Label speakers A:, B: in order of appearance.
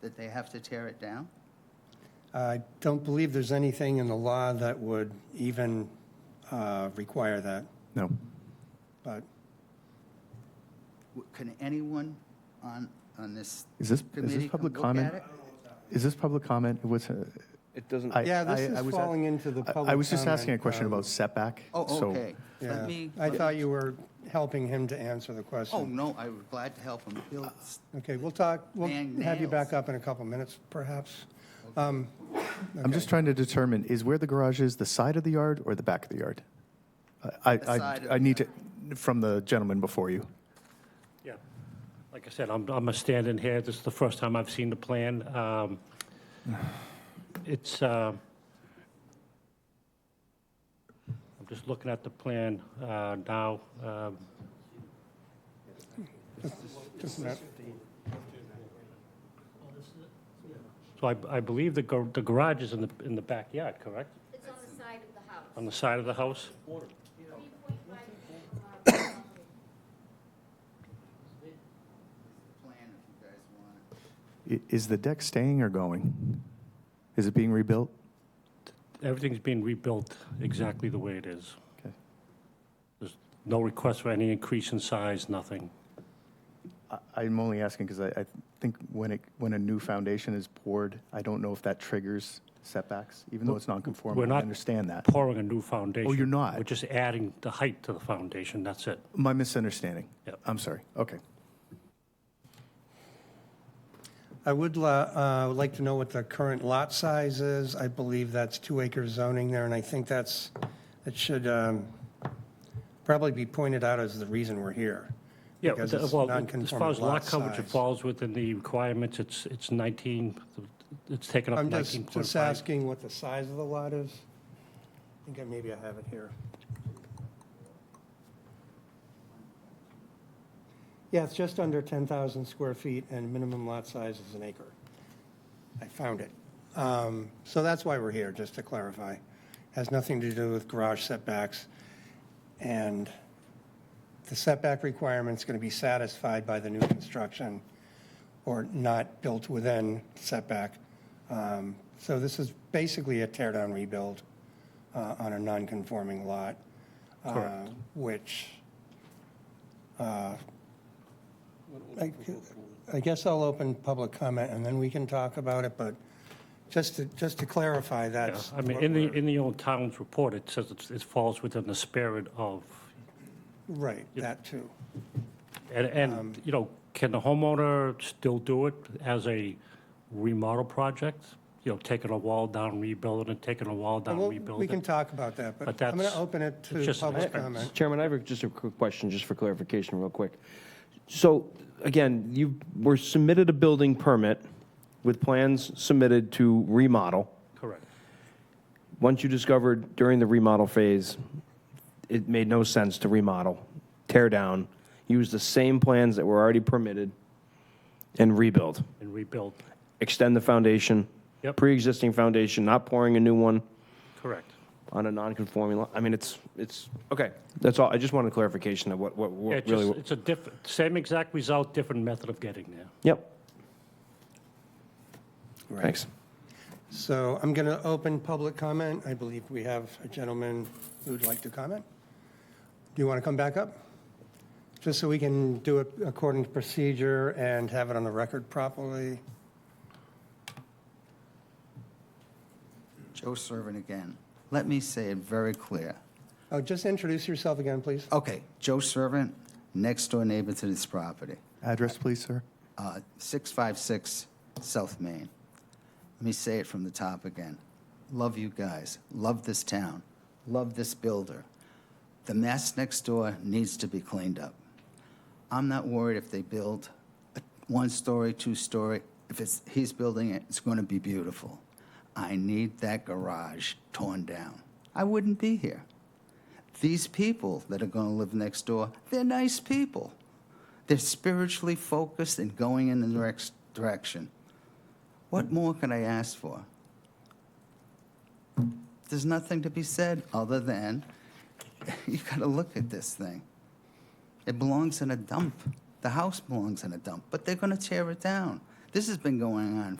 A: that they have to tear it down?
B: I don't believe there's anything in the law that would even uh, require that,
C: No.
B: but
A: W- Can anyone on, on this
C: Is this, is
A: committee
C: this
A: come
C: public
A: look at
C: comment?
A: it?
C: Is this public comment? What's, uh,
D: It doesn't,
C: I-
B: Yeah, this
C: I-
B: is
C: I was at-
B: falling into the
C: I- I
B: public
C: was just asking a
B: comment,
C: question
B: um,
C: about setback.
A: Oh,
C: so-
A: okay. Let
B: yeah.
A: me.
B: I thought you were helping him to answer the question.
A: Oh, no, I was glad to help him. He'll-
B: Okay, we'll talk, we'll
A: Dang
B: have you
A: nails.
B: back up in a couple minutes, perhaps. Um,
C: I'm just trying to determine, is where the garage is, the side of the yard or the back of the yard? I,
A: The
C: I,
A: side of
C: I
A: the
C: need to, from the gentleman before you.
E: Yeah, like I said, I'm, I'm a stand-in here, this is the first time I've seen the plan. Um, It's, uh, I'm just looking at the plan uh, now. Um,
B: Just a minute.
E: So I, I believe the gar- the garage is in the, in the backyard, correct?
F: It's on the side of the house.
E: On the side of the house?
F: Three point five feet from the property.
A: Plan if you guys want it.
C: I- Is the deck staying or going? Is it being rebuilt?
E: Everything's being rebuilt exactly the way it is.
C: Okay.
E: There's no request for any increase in size, nothing.
C: I- I'm only asking because I, I think when it, when a new foundation is poured, I don't know if that triggers setbacks, even though it's non-conforming. I
E: not
C: understand that. Oh,
E: Pouring a new foundation.
C: you're not?
E: We're just adding the height to the foundation, that's it.
C: My misunderstanding.
E: Yep.
C: I'm sorry. Okay.
B: I would la- uh, would like to know what the current lot size is. I believe that's two acre zoning there, and I think that's, that should um, probably be pointed out as the reason we're here.
E: Yeah,
B: because
E: the-
B: it's
E: well, as
B: non-conforming
E: far as lot
B: lot
E: coverage, it
B: size.
E: falls within the requirements, it's, it's 19, it's taken up
B: I'm just, just
E: 19.5.
B: asking what the size of the lot is. I think I, maybe I have it here. Yeah, it's just under 10,000 square feet and minimum lot size is an acre. I found it. Um, So that's why we're here, just to clarify. Has nothing to do with garage setbacks. And the setback requirement's going to be satisfied by the new construction or not built within setback. Um, So this is basically a tear-down rebuild uh, on a non-conforming lot. uh,
E: Correct.
B: Which, uh, I I guess I'll open public comment and then we can talk about it, but just to, just to clarify,
E: Yeah,
B: that's.
E: I mean,
B: what
E: in the,
B: we're-
E: in the old town's report, it says it's- it falls within the spirit of,
B: Right, that too.
E: and,
B: Um,
E: and, you know, can the homeowner still do it as a remodel project? You know, taking a wall down, rebuilding it, taking a wall down,
B: Well,
E: rebuilding
B: we
E: it?
B: can talk about that, but
E: But
B: I'm going
E: that's-
B: to open it
E: it's
B: to
E: just an
B: public
E: expense.
B: comment.
D: Chairman, I have a- just a quick question, just for clarification, real quick. So, again, you were submitted a building permit with plans submitted to remodel.
E: Correct.
D: Once you discovered during the remodel phase, it made no sense to remodel, tear down, use the same plans that were already permitted, and rebuild.
E: And rebuild,
D: Extend the foundation.
E: Yep.
D: Pre-existing foundation, not pouring a new one.
E: correct.
D: on a non-conforming lot. I mean, it's, it's, okay, that's all, I just wanted clarification of what, what,
E: Yeah,
D: what
E: It's just,
D: really.
E: it's a different, same exact result, different method of getting there.
D: Yep. Thanks.
B: So I'm going to open public comment. I believe we have a gentleman who would like to comment. Do you want to come back up? Just so we can do it according to procedure and have it on the record properly.
A: Joe Servant again. Let me say it very clear.
B: Oh, just introduce yourself again, please.
A: Okay, Joe Servant, next door neighbor to this property.
C: Address, please, sir.
A: uh, 656 South Main. Let me say it from the top again. Love you guys. Love this town. Love this builder. The mess next door needs to be cleaned up. I'm not worried if they build a one story, two story. If it's, he's building it, it's going to be beautiful. I need that garage torn down. I wouldn't be here. These people that are going to live next door, they're nice people. They're spiritually focused and going in the direct direction. What more can I ask for? There's nothing to be said other than you got to look at this thing. It belongs in a dump. The house belongs in a dump, but they're going to tear it down. This has been going on